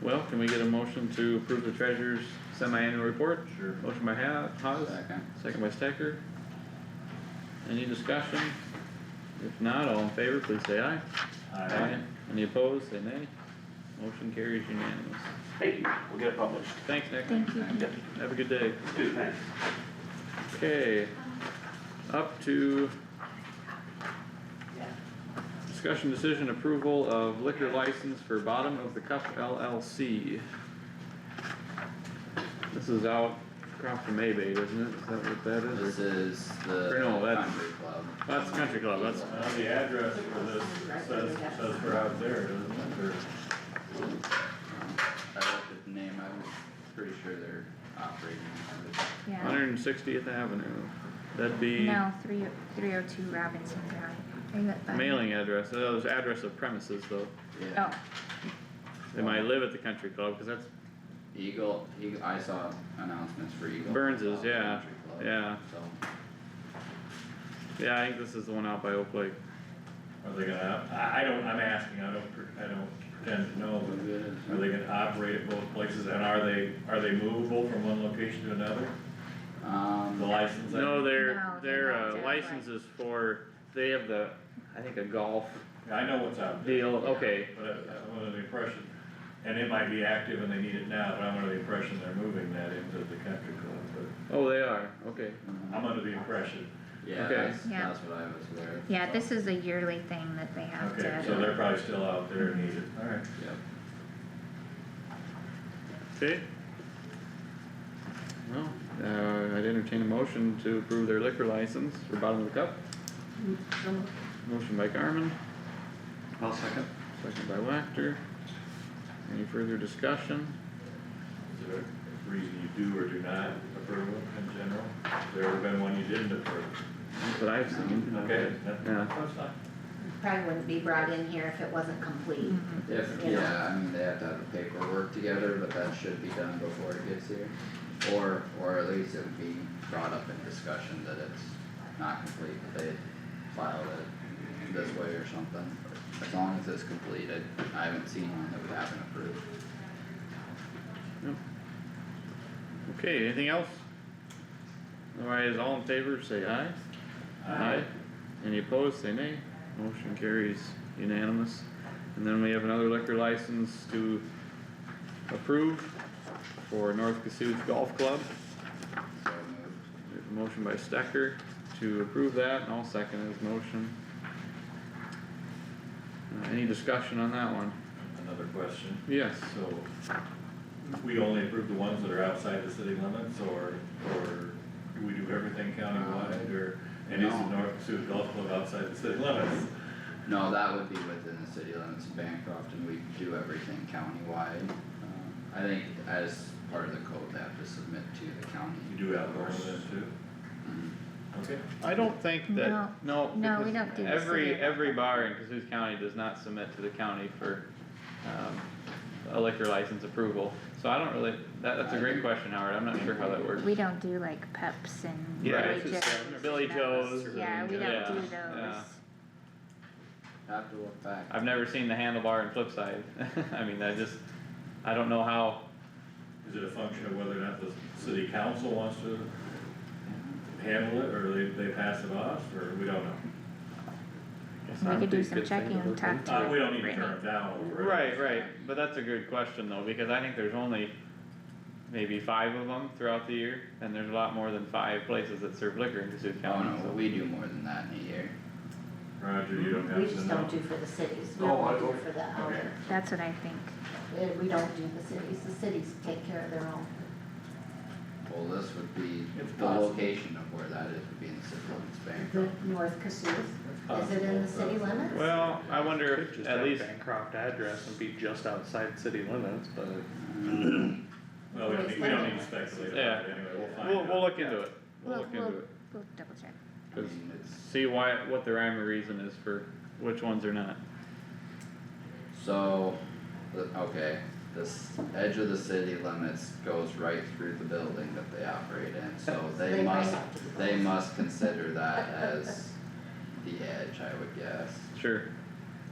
Well, can we get a motion to approve the treasurer's semi-annual report? Sure. Motion by Ha- Haas, Second. second by Stecker. Any discussion? If not, all in favor, please say aye. Any opposed, say nay. Motion carries unanimous. Thank you, we'll get it published. Thanks, Nick. Thank you. Thank you. Have a good day. Good, thanks. Okay, up to discussion decision approval of liquor license for Bottom of the Cup LLC. This is out across from Maybay, isn't it? Is that what that is? This or- is the. Or no, that's- Country Club. That's Country Club, that's, Uh, the address for this says, says we're out there, doesn't it, or? I looked at the name, I was pretty sure they're operating. out of- Yeah, Hundred and Sixtieth Avenue, that'd be no, three, three oh two Robinson Drive. Is it by- mailing address, that was address of premises though. Yeah, Oh, They might live at the country club, cause that's, Eagle, Eagle, I saw announcements for Eagle. Burns's, Club, yeah, Country Club, yeah, So, yeah, I think this is the one out by Oak Lake. Are they gonna, I, I don't, I'm asking, I don't, pre- I don't pretend to know, but are they gonna operate at both places, and are they, are they movable from one location to another? The um, license? I- No, their, No, they're their not uh, there, right. license is for, they have the, I think a golf I know what's out there, deal, okay, but I- I'm under the impression, and it might be active and they need it now, but I'm under the impression they're moving that into the country club, oh, they are, okay. but I'm under the impression, yeah, Okay. that's, Yeah. that's what I was aware of. yeah, this is a yearly thing that they have okay, so to, they're probably still out there and need it, alright. Yep. Okay. Well, uh, I'd entertain a motion to approve their liquor license for bottom of the cup. Motion by Garmin, I'll second. second by Wactor. Any further discussion? Is there a reason you do or do not approve them in general? Has there ever been one you didn't approve? That's what I've seen. Okay, that, Yeah. that's fine. Probably wouldn't be brought in here if it wasn't complete. Mm-hmm. If, Yeah. yeah, I mean, they have to have the paperwork together, but that should be done before it gets here. Or, or at least it would be brought up in discussion that it's not complete, that they filed it this way or something. As long as it's completed, I haven't seen one that we haven't approved. Okay, anything else? Otherwise, all in favor, say aye. Aye. Any opposed, say nay. Motion carries unanimous. And then we have another liquor license to approve for North Cassuth Golf Club. So moved. We have a motion by Stecker to approve that, and I'll second his motion. Uh, any discussion on that one? Another question, Yes, so we only approve the ones that are outside the city limits or, or do we do everything countywide or? And is the No. North Sioux Golf Club outside the city limits? No, that would be within the city limits of Bancroft and we do everything countywide. Um, I think as part of the code, they have to submit to the county. You do have one of them too? Mhm. Okay, I don't think that, no. no, we because don't do the Every, city. every bar in Cassuth County does not submit to the county for, um, a liquor license approval. So I don't really, that, that's a great question, Howard, I'm not sure how that works. we don't do like Peps and Yeah, Billy it's just Joes like Billy and those. Joes Yeah, and- we don't yeah, do yeah. those. Have to look back. I've never seen the handlebar and flip side, I mean, I just, I don't know how, is it a function of whether or not the city council wants to handle it or they, they pass it off or we don't know? I guess We I'm could do too some good thing to checking and look talk into. to Uh, we don't need to Brittany. turn it down over it. Right, right, but that's a good question though, because I think there's only maybe five of them throughout the year, and there's a lot more than five places that serve liquor in Cassuth Oh County, no, so. we do more than that in a year. Roger, you don't have to know. We just don't do for the cities, we Oh, only I do don't- for the okay. outer, That's what I think. Uh, we don't do the cities, the cities take care of their own. Well, this would be, It's the possible. location of where that is would be in the city limits The Bancroft. North Cassuth, is it in the city limits? Well, I wonder Could if just at have least, Bancroft address and be just outside city limits, but Well, we don't need, we don't need to speculate Yeah. about it anyway, we'll find out. we'll, we'll look into it, we'll We'll, look we'll, into it, we'll double check. I mean, it's, see why, what the rhyme or reason is for which ones are not. so, the, okay, this edge of the city limits goes right through the building that they operate in, so they They might must, have to do they both. must consider that as the edge, I would guess. Sure,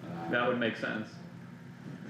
Um, that would make sense,